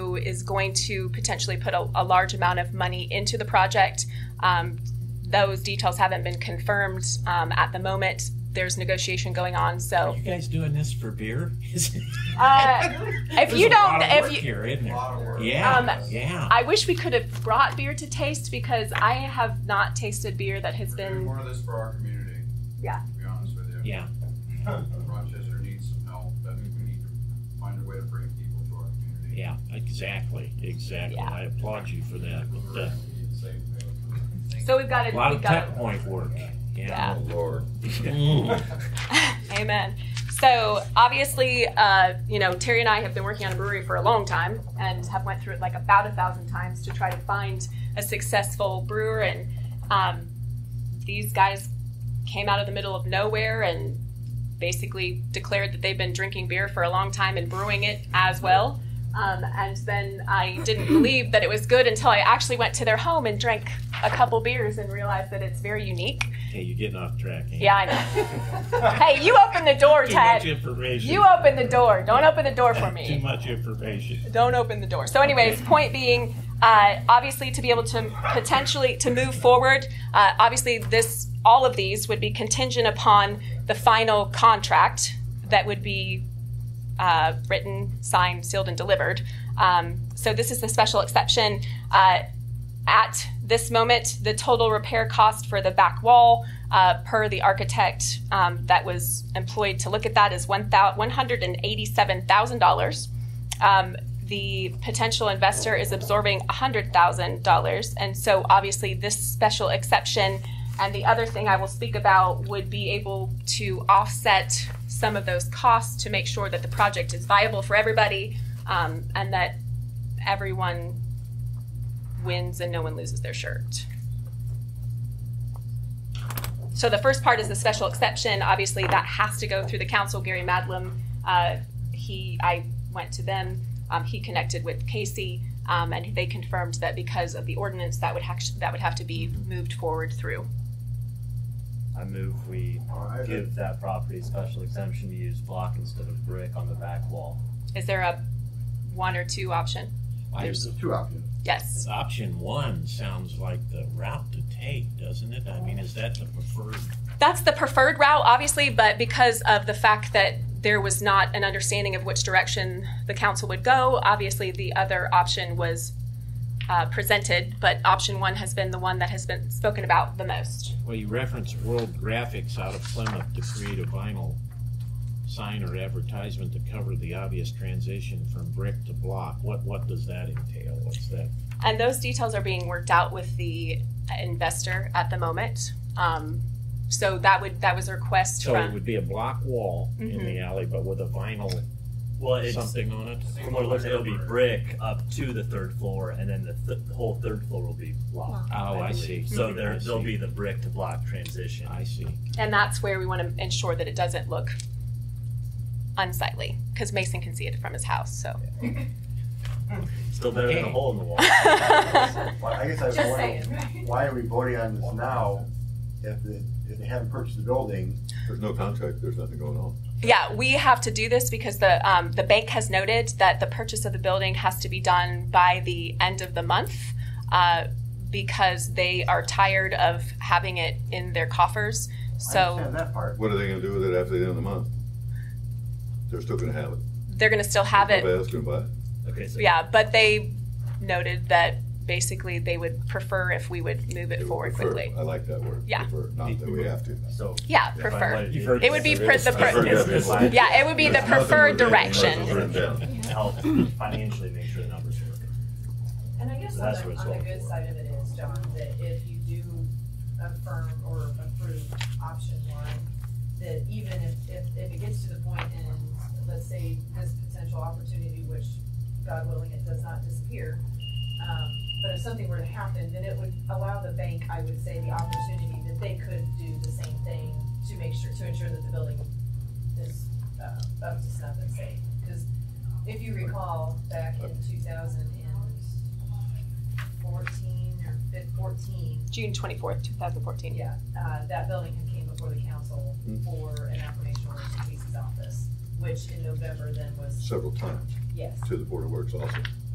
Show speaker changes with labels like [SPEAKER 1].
[SPEAKER 1] is going to potentially put a, a large amount of money into the project. Um, those details haven't been confirmed um, at the moment. There's negotiation going on,
[SPEAKER 2] Are
[SPEAKER 1] so
[SPEAKER 2] you guys doing this for beer?
[SPEAKER 1] uh, if you don't, if you,
[SPEAKER 2] here, isn't there?
[SPEAKER 3] work.
[SPEAKER 2] Yeah,
[SPEAKER 1] Um,
[SPEAKER 2] yeah.
[SPEAKER 1] I wish we could have brought beer to taste because I have not tasted beer that has
[SPEAKER 3] We're doing
[SPEAKER 1] been.
[SPEAKER 3] more of this for our community.
[SPEAKER 1] Yeah.
[SPEAKER 3] To be honest with you. Uh,
[SPEAKER 2] yeah.
[SPEAKER 3] Rochester needs some help, that we need to find a way to bring people to our community.
[SPEAKER 2] Yeah, exactly, exactly.
[SPEAKER 1] Yeah.
[SPEAKER 2] I applaud you for that. But, uh,
[SPEAKER 1] So we've got
[SPEAKER 2] a
[SPEAKER 1] it.
[SPEAKER 2] lot
[SPEAKER 1] we've
[SPEAKER 2] of
[SPEAKER 1] got
[SPEAKER 2] tech point work.
[SPEAKER 1] Yeah.
[SPEAKER 2] Yeah.
[SPEAKER 3] Oh, Lord.
[SPEAKER 2] Mm.
[SPEAKER 1] Amen. So obviously, uh, you know, Terry and I have been working on a brewery for a long time and have went through it like about a thousand times to try to find a successful brewer. And um, these guys came out of the middle of nowhere and basically declared that they've been drinking beer for a long time and brewing it as well. Um, and then I didn't believe that it was good until I actually went to their home and drank a couple beers and realized that it's very unique.
[SPEAKER 2] Hey, you're getting off track. Amy.
[SPEAKER 1] Yeah, I know. hey, you open the door,
[SPEAKER 2] Too
[SPEAKER 1] Ted.
[SPEAKER 2] much information.
[SPEAKER 1] You open the door. Don't open the door for
[SPEAKER 2] Too
[SPEAKER 1] me.
[SPEAKER 2] much information.
[SPEAKER 1] Don't open the door. So, anyways, point being, uh, obviously, to be able to potentially to move forward, uh, obviously, this all of these would be contingent upon the final contract that would be uh, written, signed, sealed, and delivered. Um, so, this is the special exception. Uh, at this moment, the total repair cost for the back wall, uh, per the architect um, that was employed to look at that, is one thou- $187,000. Um, the potential investor is absorbing $100,000. And so, obviously, this special exception and the other thing I will speak about would be able to offset some of those costs to make sure that the project is viable for everybody um, and that everyone wins and no one loses their shirt. So the first part is the special exception. Obviously, that has to go through the council. Gary Madlam, uh, he, I went to them. Um, he connected with Casey, um, and they confirmed that because of the ordinance, that would actually, that would have to be moved forward through.
[SPEAKER 4] I move we give that property special exemption to use block instead of brick on the back wall.
[SPEAKER 1] Is there a one or two option?
[SPEAKER 2] There's
[SPEAKER 3] two options.
[SPEAKER 1] Yes.
[SPEAKER 2] option one sounds like the route to take, doesn't it? I mean, is that the preferred?
[SPEAKER 1] That's the preferred route, obviously, but because of the fact that there was not an understanding of which direction the council would go, obviously the other option was uh, presented, but option one has been the one that has been spoken about the most.
[SPEAKER 2] Well, you referenced World Graphics out of Plymouth to create a vinyl sign or advertisement to cover the obvious transition from brick to block. What what does that entail? What's that?
[SPEAKER 1] And those details are being worked out with the investor at the moment. Um, so that would that was a request
[SPEAKER 2] So it
[SPEAKER 1] from
[SPEAKER 2] would be a block wall in the alley, but with a vinyl
[SPEAKER 4] Well, it's,
[SPEAKER 2] something on it.
[SPEAKER 4] from what it looks like, it'll be brick up to the third floor, and then the, th- the whole third floor will be block.
[SPEAKER 2] Oh, I see.
[SPEAKER 4] So
[SPEAKER 2] I
[SPEAKER 4] there, there'll
[SPEAKER 2] see.
[SPEAKER 4] be the brick to block transition.
[SPEAKER 2] I see.
[SPEAKER 1] and that's where we want to ensure that it doesn't look unsightly because Mason can see it from his house. So
[SPEAKER 4] Still better than a
[SPEAKER 2] Okay.
[SPEAKER 4] hole in the wall.
[SPEAKER 5] Well, I guess I was
[SPEAKER 1] Just
[SPEAKER 5] wondering, why are we voting on this now if the, if they haven't purchased the building?
[SPEAKER 6] There's no contract, there's nothing going on.
[SPEAKER 1] Yeah, we have to do this because the um, the bank has noted that the purchase of the building has to be done by the end of the month uh, because they are tired of having it in their coffers.
[SPEAKER 5] I
[SPEAKER 1] So
[SPEAKER 5] understand that part.
[SPEAKER 6] What are they gonna do with it after the end of the month? They're still gonna have it.
[SPEAKER 1] they're going to still have it.
[SPEAKER 6] Nobody's gonna buy it.
[SPEAKER 4] Okay, so
[SPEAKER 1] Yeah, but they noted that basically they would prefer if we would move
[SPEAKER 6] They
[SPEAKER 1] it
[SPEAKER 6] would
[SPEAKER 1] forward
[SPEAKER 6] prefer.
[SPEAKER 1] quickly.
[SPEAKER 6] I like that word.
[SPEAKER 1] Yeah.
[SPEAKER 6] prefer, Not that we have to.
[SPEAKER 4] So
[SPEAKER 1] Yeah,
[SPEAKER 4] if I
[SPEAKER 1] prefer.
[SPEAKER 4] wanted to
[SPEAKER 2] You've heard
[SPEAKER 1] It would be pre- the
[SPEAKER 6] I've heard
[SPEAKER 1] pre-
[SPEAKER 6] that before.
[SPEAKER 1] yeah, it would be the
[SPEAKER 6] There's nothing
[SPEAKER 1] preferred
[SPEAKER 6] within the commercials
[SPEAKER 1] direction.
[SPEAKER 6] written down.
[SPEAKER 4] help financially make sure the numbers work.
[SPEAKER 7] And I guess
[SPEAKER 4] So
[SPEAKER 7] on
[SPEAKER 4] that's what
[SPEAKER 7] the,
[SPEAKER 4] it's
[SPEAKER 7] on the
[SPEAKER 4] all
[SPEAKER 7] good
[SPEAKER 4] for.
[SPEAKER 7] side of it is, John, that if you do affirm or approve option one, that even if, if, if it gets to the point and, let's say, this potential opportunity, which God willing, it does not disappear, um, but if something were to happen, then it would allow the bank, I would say, the opportunity that they could do the same thing to make sure, to ensure that the building is, uh, up to snuff and safe. Cause if you recall, back in two thousand and fourteen or fif- fourteen,
[SPEAKER 1] June 24th, 2014.
[SPEAKER 7] yeah, uh, that building had came before the council
[SPEAKER 6] Hmm.
[SPEAKER 7] for an affirmation order to Casey's office, which in November then was,
[SPEAKER 6] Several times
[SPEAKER 7] yes,
[SPEAKER 6] to the Board of Works also.